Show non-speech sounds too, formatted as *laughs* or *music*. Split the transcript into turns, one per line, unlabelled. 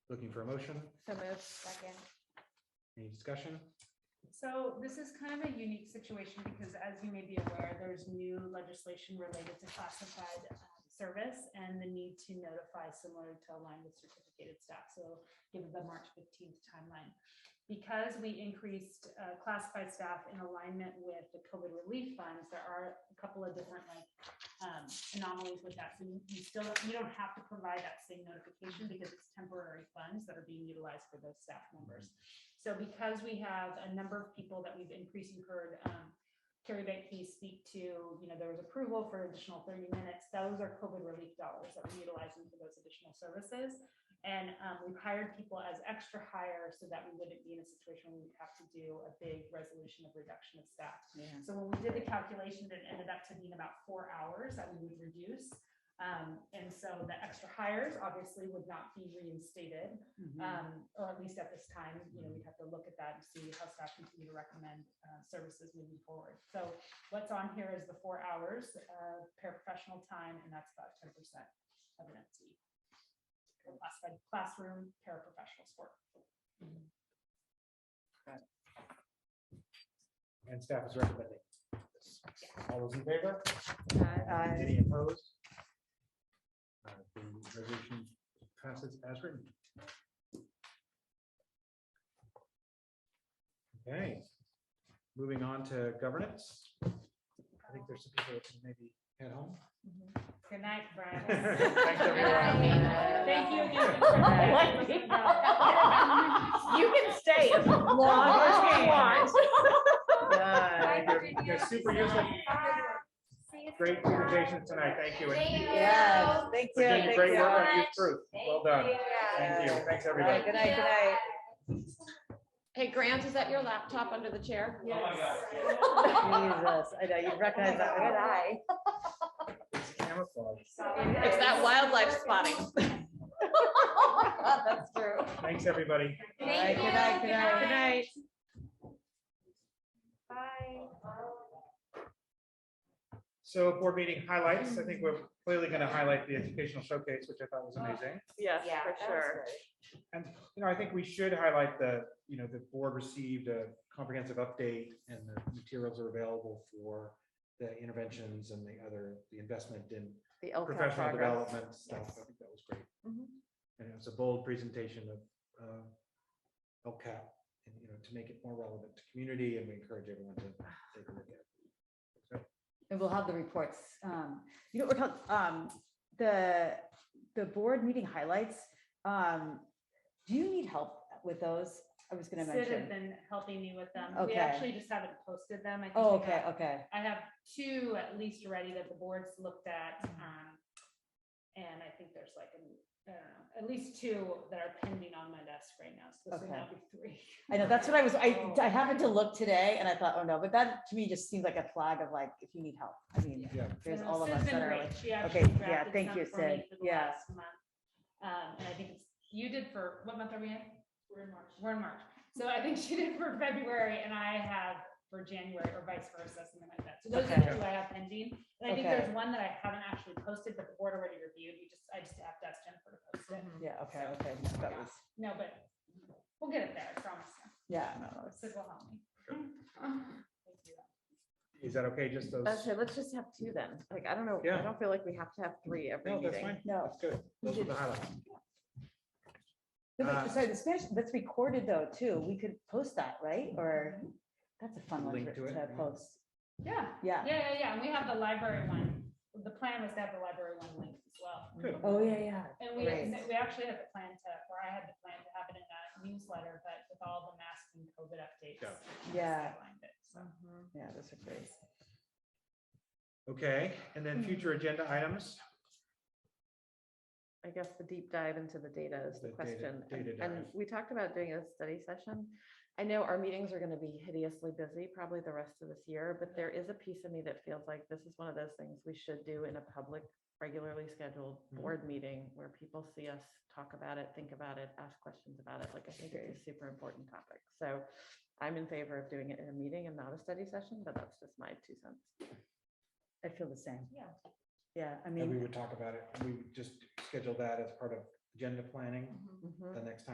Looking for a motion,
So moved.
Second.
any discussion?
So this is kind of a unique situation because as you may be aware, there's new legislation related to classified uh, service and the need to notify similar to align with certificated staff. So given the March fifteenth timeline. Because we increased uh, classified staff in alignment with the COVID relief funds, there are a couple of different like um, anomalies with that. So you you still, you don't have to provide that same notification because it's temporary funds that are being utilized for those staff members. So because we have a number of people that we've increased, you heard um, Carrie Benke speak to, you know, there was approval for additional thirty minutes. Those are COVID relief dollars that we're utilizing for those additional services. And um, we've hired people as extra hire so that we wouldn't be in a situation where we'd have to do a big resolution of reduction of staff. So when we did the calculations, it ended up to being about four hours that we would reduce. Um, and so the extra hires obviously would not be reinstated. Um, or at least at this time, you know, we'd have to look at that and see how staff continue to recommend, uh, services moving forward. So what's on here is the four hours of paraprofessional time, and that's about ten percent of an E. FTE. Or Classified classroom paraprofessional support.
And staff is recommending. All those in favor?
Aye.
Any opposed? Uh, The resolution passes as written. Okay, moving on to governance. I think there's some people that maybe head home.
Good night, Brian.
Thanks,
everyone.
Thank
*laughs*
you again. for your time.
You can stay as long as you want.
You're- You're super useful. Great presentation tonight. Thank you. And
Thank you.
Yes, thank
for
you,
doing
thank
Great
you.
work on youth truth. Well done.
Thank
Thank you. Thanks,
All right,
everybody.
Good night, good night.
Hey, Grant, is that your laptop under the chair?
Jesus, I know, you'd recognize that. Good eye.
It's camouflage.
It's that wildlife spotting.
*laughs* That's true.
Thanks, everybody.
All right, good night, good night, good night.
So board meeting highlights, I think we're clearly going to highlight the educational showcase, which I thought was amazing.
Yes,
Yeah,
for
that was
sure.
And, you know, I think we should highlight the, you know, the board received a comprehensive update and the materials are available for the interventions and the other, the investment in
The LCAP
professional
progress.
development stuff. I think that was great.
Mhm.
And it was a bold presentation of uh, LCAP, and, you know, to make it more relevant to community, and we encourage everyone to take a look at. it. So,
And we'll have the reports. Um, you know, we're talking, um, the, the board meeting highlights. Um, do you need help with those? I was *laughs* gonna
Sid has
mention.
been helping me with them. We
Okay.
actually just haven't posted them. I think
Oh,
we
okay,
have-
okay.
I have two at least already that the board's looked at.
Mm-hmm.
um, And I think there's like, an- I don't know, at least two that are pending on my desk right now. So this would
Okay.
now be three.
I know, that's what I was, I, I happened to look today and I thought, oh no, but that to me just seems like a flag of like, if you need help, I mean,
Yeah,
there's
No,
all of
Sid's
us
been
that are
great.
like.
She actually
yeah,
drafted
thank
some
you,
for me
Sid.
for the
Yeah.
last month. Um, and I think it's, you did for, what month are we in? We're in March. We're in March. So I think *laughs* she did for February and I have for January or vice versa, something like that. So those are
Okay.
the two I have pending. And I think
Okay.
there's one that I haven't actually posted, but the board already reviewed. You just, I just have to ask Jennifer to post it.
Yeah, okay, okay. no, That was,
No, but we'll get it there, I promise.
yeah, no, that was-
Sid will help me. Thank you.
Is that okay, just those?
That's it, let's just have two then. Like, I don't know,
Yeah.
I don't feel like we have to have three every
No, that's
meeting.
fine.
no.
That's good. Those were the highlights.
But
Uh,
the- Sorry, the Spanish, that's recorded though, too. We could post that, right? Or, that's a fun one
Link
to
to it,
to
yeah.
post.
Yeah,
Yeah.
yeah, yeah, yeah. And we have the library one. The plan was to have the library one linked as well.
Good.
Oh, yeah, yeah.
And we,
Right.
we actually had the plan to, or I had the plan to have it in a newsletter, but with all the mask and COVID updates.
Yeah.
we just
Yeah.
sidelined it, so.
Yeah, those are great.
Okay, and
Mm-hmm.
then future agenda items.
I guess the deep dive into the data is the
The data-
question. and-
data
And
dive.
we talked about doing a study session. I know our meetings are going to be hideously busy probably the rest of this year, but there is a piece of me that feels like this is one of those things we should do in a public, regularly scheduled
Mhm.
Mm-hmm.
board meeting where people see us, talk about it, think about it, ask questions about it. Like I think it's a super important topic. So I'm in favor of doing it in a meeting and not a study session, but that's just my two cents.
I feel the same.
Yeah.
Yeah, I
And we
mean,
would talk about it. We would just schedule that as part of agenda planning
Mhm.
Mhm.
Mm-hmm.
Mm-hmm.
the next time